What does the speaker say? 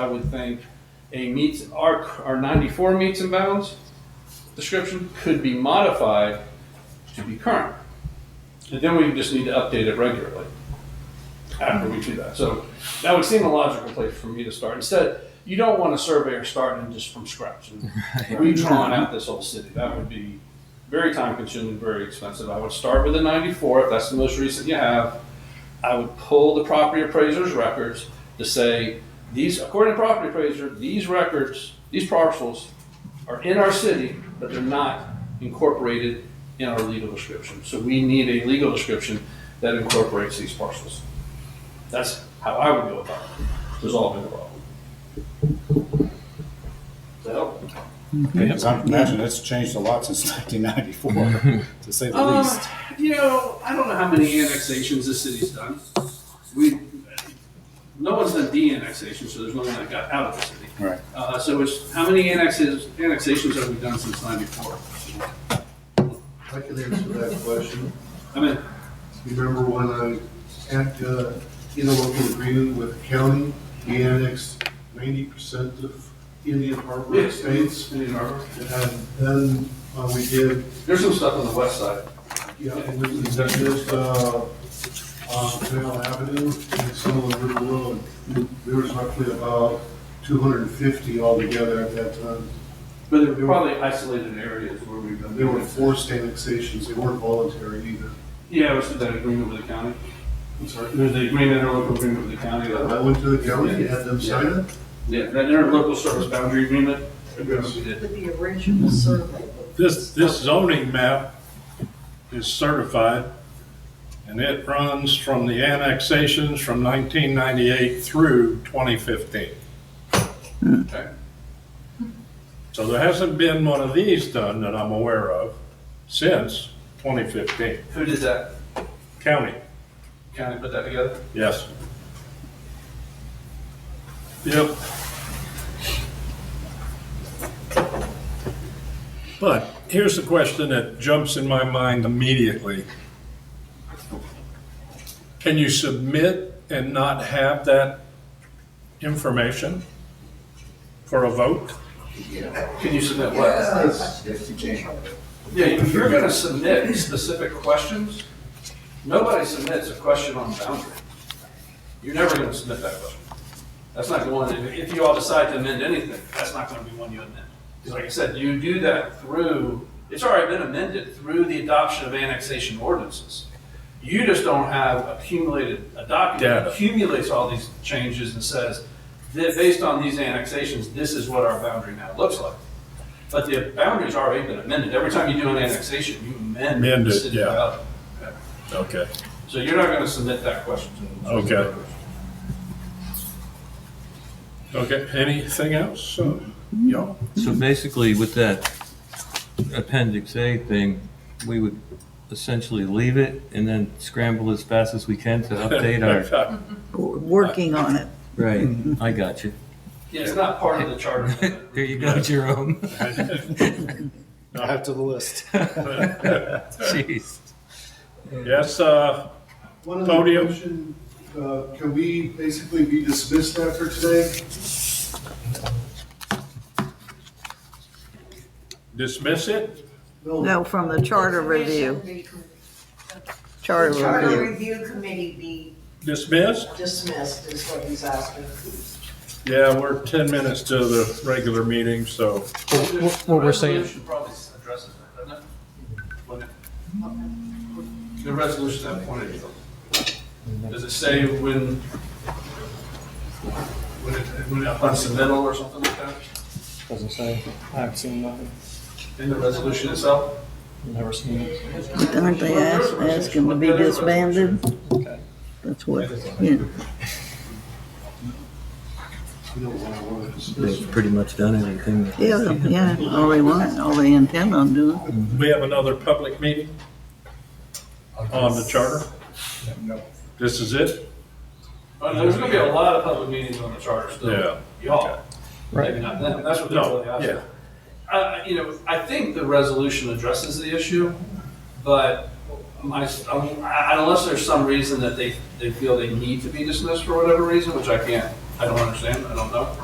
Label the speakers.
Speaker 1: I would think a meets, our, our ninety-four meets and bounds description could be modified to be current. And then we just need to update it regularly after we do that. So that would seem a logical place for me to start. Instead, you don't want a surveyor starting just from scratch and redrawing out this whole city. That would be very time consuming, very expensive. I would start with a ninety-four, if that's the most recent you have. I would pull the property appraiser's records to say, these, according to property appraiser, these records, these parcels are in our city, but they're not incorporated in our legal description. So we need a legal description that incorporates these parcels. That's how I would go about resolving the problem. Does that help?
Speaker 2: Because I imagine that's changed a lot since 1994, to say the
Speaker 1: Um,
Speaker 2: least.
Speaker 1: You know, I don't know how many annexations this city's done. We, no one's done de-annexation, so there's no one that got out of the city.
Speaker 2: Right.
Speaker 1: Uh, so it's, how many annexes, annexations have we done since ninety-four?
Speaker 3: I can answer that question.
Speaker 1: I mean,
Speaker 3: You remember when I had uh, interlocal agreement with the county, we annexed ninety percent of Indian Harbor
Speaker 1: Yeah.
Speaker 3: Estates,
Speaker 1: Indian Harbor.
Speaker 3: and then uh, we did,
Speaker 1: There's some stuff on the west side.
Speaker 3: yeah, and we did uh, uh, Canal Avenue and some of the River Road. There was roughly about two hundred and fifty altogether at that uh, time.
Speaker 1: But there were probably isolated areas where we've done.
Speaker 3: They were forced annexations, they weren't voluntary either.
Speaker 1: Yeah, it was that agreement with the county.
Speaker 3: I'm sorry.
Speaker 1: There's the agreement, interlocal agreement with the county. that-
Speaker 3: I went to the county, and had them sign it.
Speaker 1: Yeah, that interlocal service boundary agreement.
Speaker 3: Yes.
Speaker 1: We did.
Speaker 4: With the original survey.
Speaker 5: This, this zoning map is certified, and it runs from the annexations from 1998 through 2015.
Speaker 1: Okay.
Speaker 5: So there hasn't been one of these done that I'm aware of since 2015.
Speaker 1: Who did that?
Speaker 5: County,
Speaker 1: County put that together?
Speaker 5: yes. Yep. But here's the question that jumps in my mind immediately. Can you submit and not have that information for a vote?
Speaker 1: Can you submit what? Yeah, if you're gonna submit specific questions, nobody submits a question on boundary. You're never gonna submit that question. That's not the one, if if you all decide to amend anything, that's not gonna be one you amend. Because like I said, you do that through, it's already been amended through the adoption of annexation ordinances. You just don't have accumulated, a document
Speaker 5: Data.
Speaker 1: that accumulates all these changes and says, that based on these annexations, this is what our boundary now looks like. But the boundary's already been amended. Every time you do an annexation, you amend.
Speaker 5: Amend
Speaker 1: the
Speaker 5: it,
Speaker 1: city
Speaker 5: yeah.
Speaker 1: boundary.
Speaker 5: Okay.
Speaker 1: So you're not gonna submit that question to.
Speaker 5: Okay. Okay, anything else? Uh, y'all?
Speaker 6: So basically, with that appendix A thing, we would essentially leave it and then scramble as fast as we can to update our,
Speaker 4: Working on it.
Speaker 6: right, I got you.
Speaker 1: Yeah, it's not part of the charter.
Speaker 6: There you go, Jerome.
Speaker 2: I'll have to the list.
Speaker 6: Jeez.
Speaker 5: Yes, uh,
Speaker 3: One
Speaker 5: Podium.
Speaker 3: other question, uh, can we basically be dismissed after today?
Speaker 5: dismiss it?
Speaker 4: No, from the charter review, charter
Speaker 7: The charter
Speaker 4: review.
Speaker 7: review committee be
Speaker 5: Dismissed?
Speaker 7: dismissed is what he's asking.
Speaker 5: Yeah, we're 10 minutes to the regular meeting, so
Speaker 1: What we're saying. Probably addresses that, doesn't it? Wouldn't it? The resolution at that point, it does. does it say when, when it, when it, upon submittal or something like that?
Speaker 8: Doesn't say. I haven't seen nothing.
Speaker 1: In the resolution itself?
Speaker 8: Never seen it.
Speaker 4: Aren't they ask- asking to be disbanded?
Speaker 8: Okay.
Speaker 4: That's what,
Speaker 3: We
Speaker 4: yeah.
Speaker 3: don't want to want to dismiss.
Speaker 6: They've pretty much done everything. that-
Speaker 4: Yeah, yeah, all they want, all they intend on doing.
Speaker 5: we have another public meeting on the charter? This is it?
Speaker 1: Oh, no, There's gonna be a lot of public meetings on the charter still.
Speaker 5: Yeah.
Speaker 1: Y'all. Maybe not them, that's what they're
Speaker 5: No,
Speaker 1: really asking.
Speaker 5: yeah.
Speaker 1: Uh, you know, I think the resolution addresses the issue, but my, um, I- unless there's some reason that they, they feel they need to be dismissed for whatever reason, which I can't, I don't understand, I don't know.